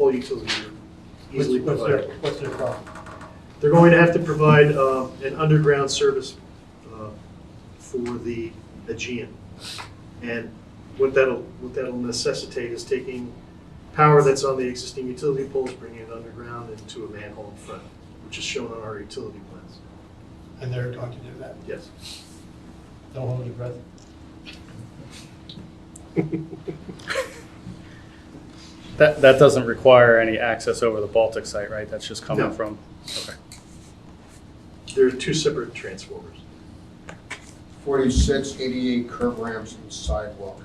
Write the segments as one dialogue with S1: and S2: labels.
S1: all utilities are
S2: What's
S1: easily
S2: what's their,
S1: provided.
S2: what's their problem?
S1: They're going to have to provide um, an underground service uh, for the Aegean. And what that'll, what that'll necessitate is taking power that's on the existing utility poles, bringing it underground into a manhole in front, which is shown on our utility plans.
S2: And they're going to do that?
S1: Yes.
S2: Don't hold your breath.
S3: That, that doesn't require any access over the Baltic site, right? That's just
S1: No.
S3: coming from, okay.
S1: There are two separate transformers.
S4: 46, 88 curb ramps and sidewalk.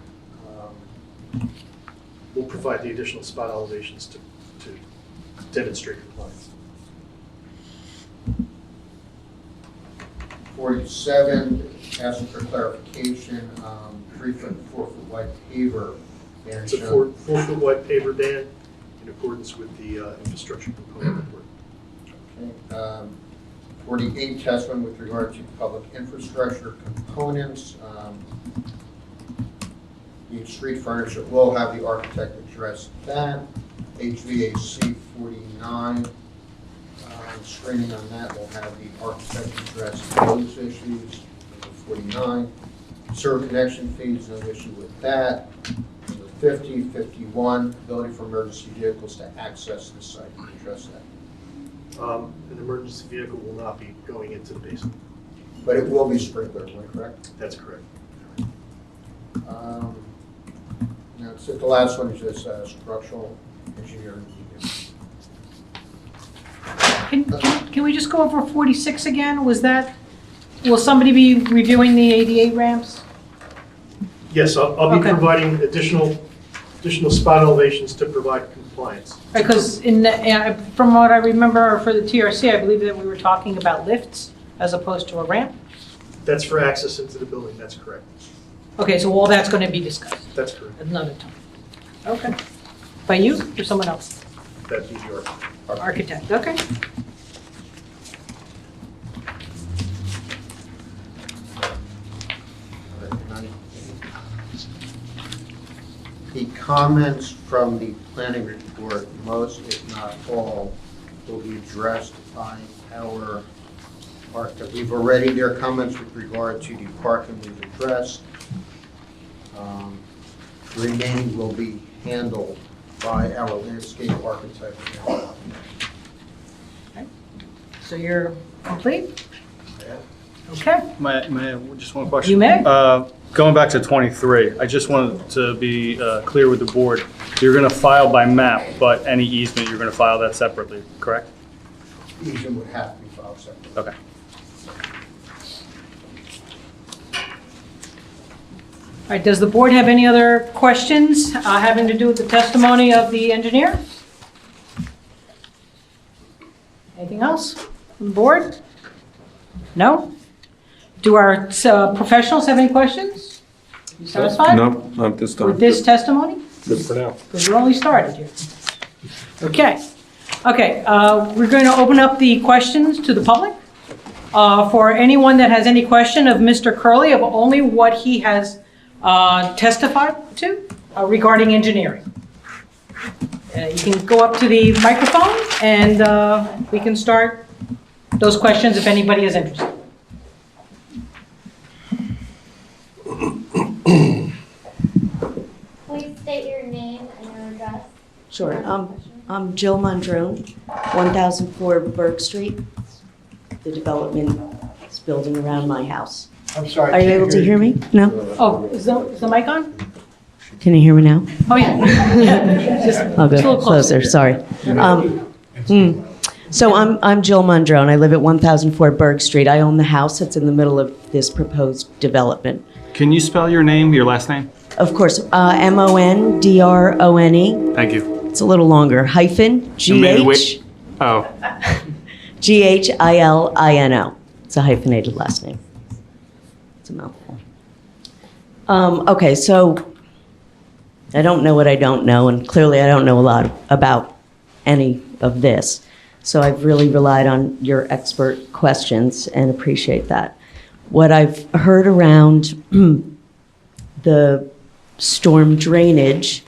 S4: Um,
S1: We'll provide the additional spot elevations to, to demonstrate compliance.
S4: 47, asking for clarification, um, three foot, four foot wide paver. and
S1: It's a
S4: show-
S1: four, four-foot wide paver band in accordance with the uh, infrastructure component report.
S4: Okay, um, 48, Tesman with regard to public infrastructure components. um, The street furniture, will have the architect address that. HVAC 49, um, screening on that, we will have the architect address those issues. Number 49, sewer connection fees, no issue with that. Number 50, 51, ability for emergency vehicles to access the site, We'll address that.
S1: Um, An emergency vehicle will not be going into the basement.
S4: But it will be sprinkler, am I correct?
S1: That's correct.
S4: Um, Now, it's the last one is this uh, structural engineering.
S5: Can, can can we just go over 46 again? Was that, will somebody be reviewing the 88 ramps?
S1: Yes, I'll, I'll be
S5: Okay.
S1: providing additional, additional spot elevations to provide compliance.
S5: Because in, the- uh, from what I remember for the TRC, I believe that we were talking about lifts as opposed to a ramp.
S1: That's for access into the building, that's correct.
S5: Okay, so all that's going to be discussed
S1: That's correct.
S5: at another time. Okay. By you or someone else?
S1: That'd be your,
S5: Architect, okay.
S4: The comments from the planning report, most if not all, will be addressed by our architect. We've already, their comments with regard to the parking we've addressed. Um, Remaining will be handled by our landscape architect.
S5: So you're complete? Okay.
S3: My, my, just one question.
S5: You may.
S3: Uh, Going back to 23, I just wanted to be uh, clear with the board. You're going to file by map, but any easement, you're going to file that separately, correct?
S4: Easement would have to be filed separately.
S3: Okay.
S5: All right, does the board have any other questions uh, having to do with the testimony of the engineer? Anything else from the board? No? Do our uh, professionals have any questions? You satisfied
S6: No, not this time.
S5: with this testimony?
S6: Good for now.
S5: Because we're only started here. Okay, okay, uh, we're going to open up the questions to the public. Uh, For anyone that has any question of Mr. Curley of only what he has uh, testified to uh, regarding engineering. Uh, You can go up to the microphone and uh, we can start those questions if anybody is interested.
S7: Please state your name and your address.
S8: Sure. Um, I'm Jill Mondrone, 1004 Burke Street. The development is building around my house.
S2: I'm sorry.
S8: Are you able to hear me? No?
S5: Oh, is the is the mic on?
S8: Can you hear me now?
S5: Oh, yeah. Just
S8: I'll
S5: It's a
S8: go
S5: little closer.
S8: closer, sorry. Um, hmm. So I'm, I'm Jill Mondrone. I live at 1004 Burke Street. I own the house that's in the middle of this proposed development.
S3: Can you spell your name, your last name?
S8: Of course, uh, M-O-N-D-R-O-N-E,
S3: Thank you.
S8: E. it's a little longer, hyphen,
S3: You may wait-
S8: G-H,
S3: Oh,
S8: G-H-I-L-I-N-O. It's a hyphenated last name. It's a mouthful. Um, okay, so I don't know what I don't know, and clearly I don't know a lot about any of this. So I've really relied on your expert questions and appreciate that. What I've heard around the storm drainage